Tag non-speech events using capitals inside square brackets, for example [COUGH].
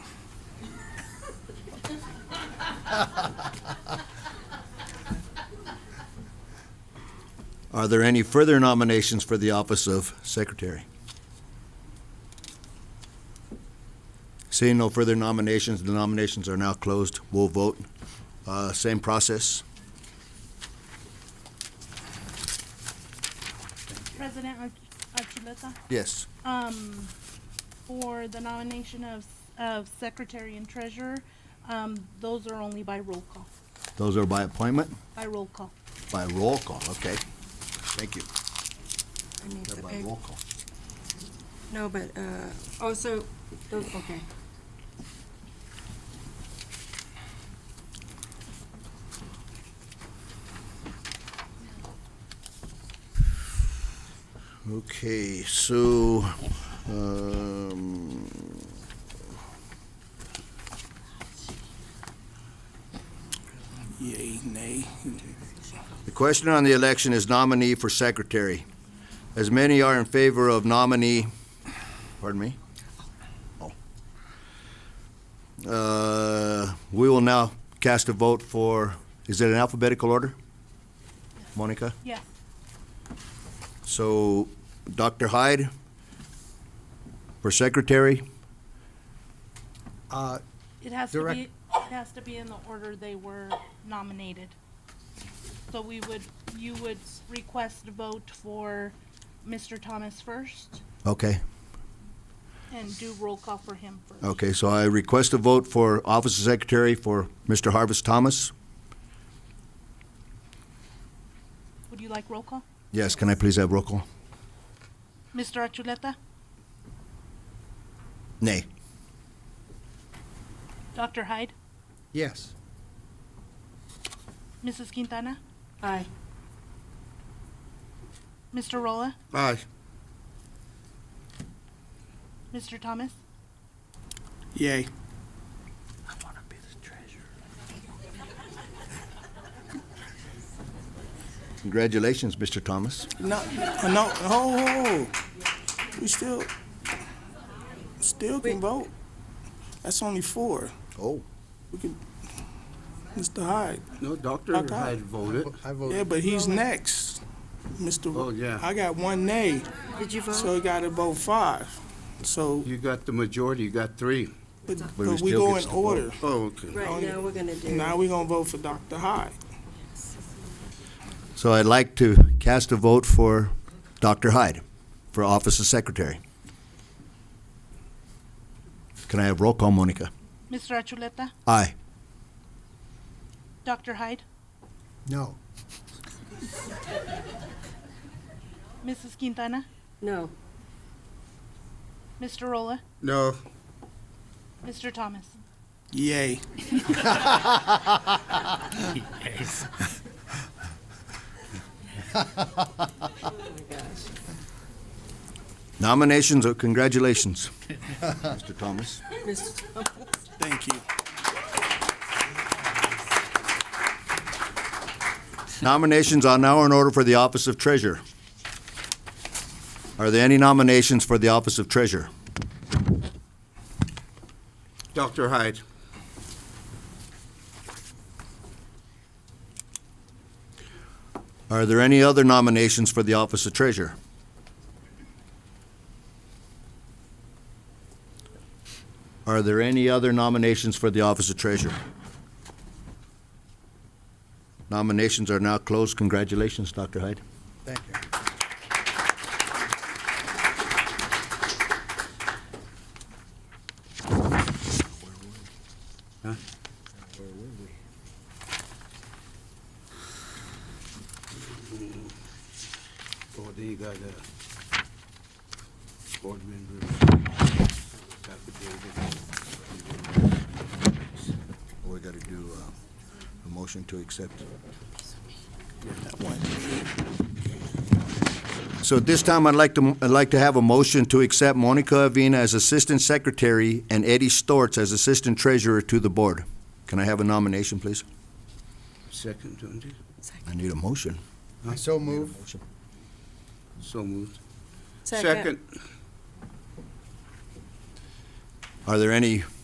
Are there any further nominations for the office of secretary? Seeing no further nominations, the nominations are now closed. We'll vote. Uh, Same process. President Arch- Archuleta, Yes. um, for the nomination of, of secretary and treasurer, um, those are only by roll call, Those are by appointment, by roll call. by roll call. Okay. Thank you. I need They're the by big- roll call. No, but, uh, also, those, okay. Okay, so, um, Yay, nay. the question on the election is nominee for secretary. As many are in favor of nominee, pardon me? Oh. Uh, we will now cast a vote for, is it in alphabetical order? Monica? Yes, So, Dr. Hyde for secretary? Uh, it has to Direct- be, it has to be in the order they were nominated. So we would, you would s- request a vote for Mr. Thomas first Okay, and do roll call for him first. okay, so I request a vote for office of secretary for Mr. Harvest Thomas. Would you like roll call? Yes, can I please have roll call? Mr. Archuleta, Nay. Dr. Hyde, yes. Mrs. Quintana, Aye. Mr. Rolla, Aye. Mr. Thomas, Yay. Congratulations, Mr. Thomas. No, uh, no, no. We still, still can vote. That's only four. Oh. We can, Mr. Hyde. No, Dr. Dr. Hyde voted. I Yeah, voted, but he's next. Mr. Oh, yeah. I got one nay, Did you so vote? he got to vote five. So, You got the majority, you got three. but we but we still go gets in to vote. order. Oh, okay. Right, now we're gonna do. Now we gonna vote for Dr. Hyde. So I'd like to cast a vote for Dr. Hyde for office of secretary. Can I have roll call, Monica? Mr. Archuleta, Aye. Dr. Hyde, no. Mrs. Quintana, No, Mr. Rolla, No, Mr. Thomas. Yay. Nominations, or congratulations, [LAUGHS] Mr. Thomas. Mr. Thank you. Nominations are now in order for the office of treasurer. Are there any nominations for the office of treasurer? Dr. Hyde. Are there any other nominations for the office of treasurer? Are there any other nominations for the office of treasurer? Nominations are now closed. Congratulations, Dr. Hyde. Thank you. Oh, then you got, uh, board members. We got to do uh, a motion to accept. So at this time, I'd like to, I'd like to have a motion to accept Monica Avina as Assistant Secretary and Eddie Storts as Assistant Treasurer to the Board. Can I have a nomination, please? Second, don't you? I need a motion. I so move, So moved. Second. Are there any